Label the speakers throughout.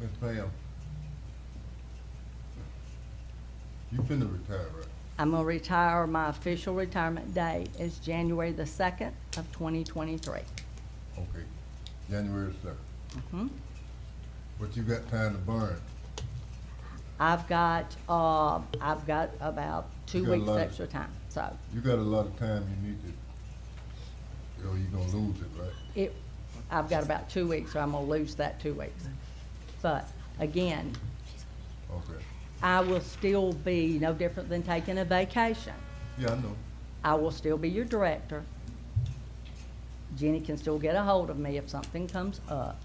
Speaker 1: Ms. Pam. You finna retire, right?
Speaker 2: I'm gonna retire, my official retirement date is January the second of twenty twenty-three.
Speaker 1: Okay, January second. But you got time to burn.
Speaker 2: I've got, uh, I've got about two
Speaker 1: You got a
Speaker 2: weeks
Speaker 1: lot of-
Speaker 2: extra time, so
Speaker 1: You got a lot of time you need to, or you gonna lose it, right?
Speaker 2: it, I've got about two weeks, so I'm gonna lose that two weeks. But again,
Speaker 1: Okay.
Speaker 2: I will still be no different than taking a vacation.
Speaker 1: Yeah, I know.
Speaker 2: I will still be your director. Jenny can still get a hold of me if something comes up.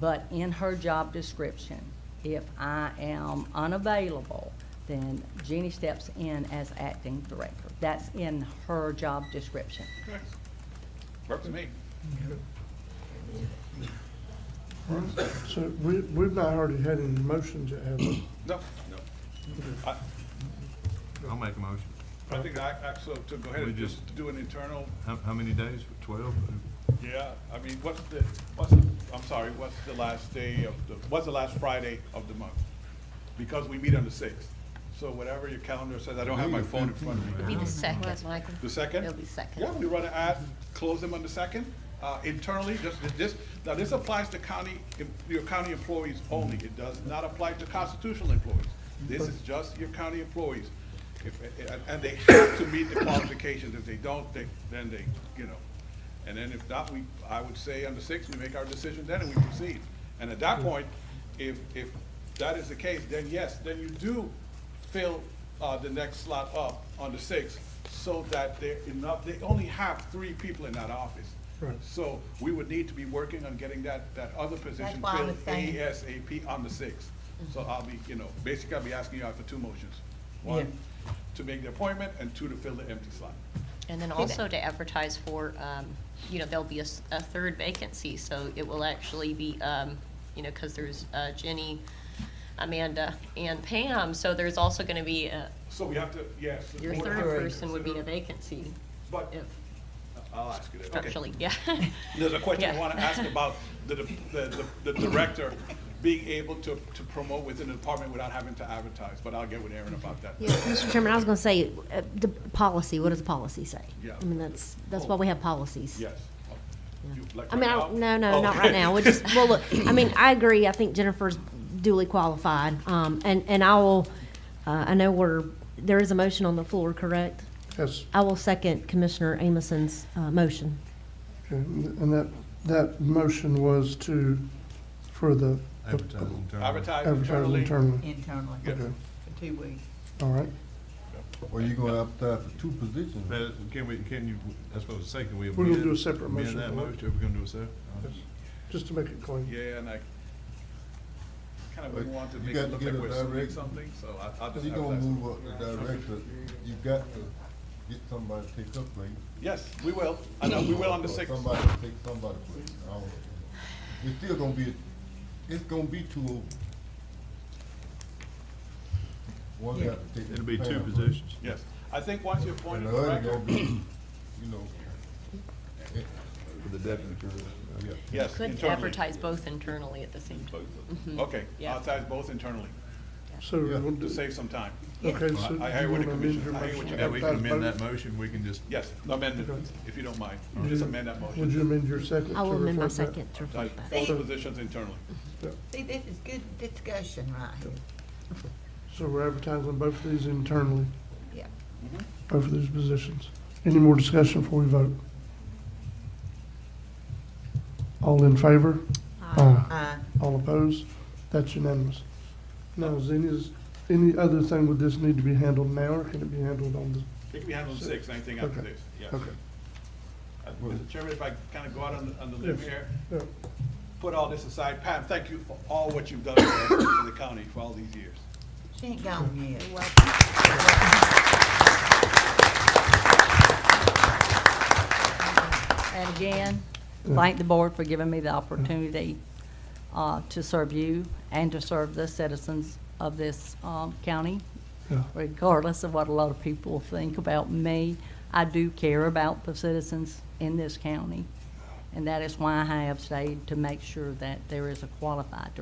Speaker 2: But in her job description, if I am unavailable, then Jenny steps in as acting director. That's in her job description.
Speaker 3: Works for me.
Speaker 4: So we, we've not already had any motions yet, have we?
Speaker 3: No, no. I,
Speaker 5: I'll make a motion.
Speaker 3: I think I, I, so to go ahead
Speaker 5: We
Speaker 3: and just
Speaker 5: just-
Speaker 3: do an internal,
Speaker 5: How, how many days? Twelve?
Speaker 3: yeah, I mean, what's the, what's, the- I'm sorry, what's the last day of the, what's the last Friday of the month? Because we meet on the sixth. So whatever your calendar says, I don't have my phone in front of me.
Speaker 6: It'll be the second, Michael.
Speaker 3: The second?
Speaker 6: It'll be second.
Speaker 3: Yeah, we run an ad, close them on the second, uh, internally, just, this, now this applies to county, em- your county employees only, it does not apply to constitutional employees. This is just your county employees, if, and, and they have to meet the qualifications, if they don't, they, then they, you know. And then if not, we, I would say on the sixth, we make our decision then and we proceed. And at that point, if, if that is the case, then yes, then you do fill uh, the next slot up on the sixth so that they're enough, they only have three people in that office.
Speaker 4: Right.
Speaker 3: So we would need to be working on getting that, that other position
Speaker 6: why I
Speaker 3: filled
Speaker 6: was saying- Mm-hmm.
Speaker 3: ASAP on the sixth. So I'll be, you know, basically I'll be asking you out for two motions. One, to make the appointment, and two, to fill the empty slot.
Speaker 6: And then also to advertise for, um, you know, there'll be a, s- a third vacancy, so it will actually be, um, you know, because there's uh, Jenny, Amanda, and Pam, so there's also going to be, a-
Speaker 3: So we have to, yes. the
Speaker 6: your
Speaker 3: board
Speaker 6: third
Speaker 3: has to
Speaker 6: person would be a
Speaker 3: consider-
Speaker 6: vacancy,
Speaker 3: But, uh,
Speaker 6: if,
Speaker 3: I'll ask you that, okay.
Speaker 6: structurally, yeah.
Speaker 3: There's a question I
Speaker 6: Yeah.
Speaker 3: want to ask about the, the, the- the director being able to, to promote within the department without having to advertise, but I'll get with Aaron about that.
Speaker 7: Yeah, Mr. Chairman, I was going to say, uh, the policy, what does the policy say?
Speaker 3: Yeah.
Speaker 7: I mean, that's, that's why we have policies.
Speaker 3: Yes. You- like
Speaker 7: I mean, I
Speaker 3: right
Speaker 7: don't,
Speaker 3: now?
Speaker 7: no, no, not
Speaker 3: Okay.
Speaker 7: right now. We just, well, look, I mean, I agree. I think Jennifer's duly qualified. Um, and, and I will, uh, I know we're, there is a motion on the floor, correct?
Speaker 4: Yes,
Speaker 7: I will second Commissioner Amison's, uh, motion.
Speaker 4: okay, and that, that motion was to, for the.
Speaker 5: Advertising term.
Speaker 3: Advertise
Speaker 4: Advertise
Speaker 3: internally.
Speaker 4: internally,
Speaker 8: internally
Speaker 3: Yeah.
Speaker 4: okay,
Speaker 8: for two weeks.
Speaker 4: all right.
Speaker 1: Or you gonna advertise for two positions?
Speaker 5: But Can we, can you, that's what I was saying, can we?
Speaker 4: We're gonna
Speaker 5: amend-
Speaker 4: do a separate motion
Speaker 5: Amend that
Speaker 4: for that.
Speaker 5: motion, are we gonna do a separate?
Speaker 4: Just to make it clean.
Speaker 3: Yeah, and I kind
Speaker 1: But
Speaker 3: of wouldn't want to
Speaker 1: you
Speaker 3: make
Speaker 1: got
Speaker 3: it
Speaker 1: to
Speaker 3: look
Speaker 1: give
Speaker 3: like
Speaker 1: a
Speaker 3: we're assuming
Speaker 1: direct-
Speaker 3: something, so I- I'll
Speaker 1: If
Speaker 3: just
Speaker 1: you gonna
Speaker 3: advertise.
Speaker 1: move up the director, you got to get somebody to take up place.
Speaker 3: Yes, we will. I know, we will on the
Speaker 1: Or
Speaker 3: sixth.
Speaker 1: Somebody to take somebody place. I don't know. It's still gonna be, it's gonna be two over. One got to take.
Speaker 5: It'll be two
Speaker 1: Pam.
Speaker 5: positions.
Speaker 3: Yes. I think once you appoint
Speaker 1: And
Speaker 3: a
Speaker 1: the other gonna
Speaker 3: director,
Speaker 1: be, you know,
Speaker 5: The deputy.
Speaker 1: yeah.
Speaker 3: yes,
Speaker 6: Could
Speaker 3: internally.
Speaker 6: advertise both internally at the same time.
Speaker 3: Okay,
Speaker 6: Yeah.
Speaker 3: advertise both internally
Speaker 4: So, we'll
Speaker 3: to
Speaker 4: do-
Speaker 3: save some time.
Speaker 4: okay, so.
Speaker 3: I- I hear what
Speaker 4: you
Speaker 3: the
Speaker 4: wanna amend
Speaker 3: commission-
Speaker 4: your
Speaker 3: I hear what
Speaker 4: motion?
Speaker 3: you
Speaker 5: Yeah, we can
Speaker 4: Advertise
Speaker 5: amend
Speaker 4: both?
Speaker 5: that motion, we can just.
Speaker 3: Yes, amend it, if you don't mind. Just amend that motion.
Speaker 4: Would you amend your second?
Speaker 7: I
Speaker 4: to
Speaker 7: will amend my
Speaker 4: reflect that?
Speaker 7: second to
Speaker 3: Uh,
Speaker 7: reflect that.
Speaker 3: Both positions internally.
Speaker 8: See, this is good discussion right here.
Speaker 4: So we're advertising both of these internally,
Speaker 8: Yeah.
Speaker 4: both of these positions. Any more discussion before we vote? All in favor? Aye.
Speaker 8: Uh,
Speaker 4: All opposed? That's unanimous. Now, is any, is any other thing would this need to be handled now, or can it be handled on the,
Speaker 3: It can be handled on six, anything after
Speaker 4: Okay.
Speaker 3: this, yes.
Speaker 4: okay.
Speaker 3: Uh, Mr. Chairman, if I kind of go out on, the- on the limb
Speaker 4: Yes.
Speaker 3: here,
Speaker 4: Yeah.
Speaker 3: put all this aside. Pam, thank you for all what you've done for us, for the county for all these years.
Speaker 8: she ain't gone yet.
Speaker 2: And again, thank the board for giving me the opportunity uh, to serve you and to serve the citizens of this um, county.
Speaker 4: Yeah.
Speaker 2: Regardless of what a lot of people think about me, I do care about the citizens in this county. And that is why I have stayed, to make sure that there is a qualified director.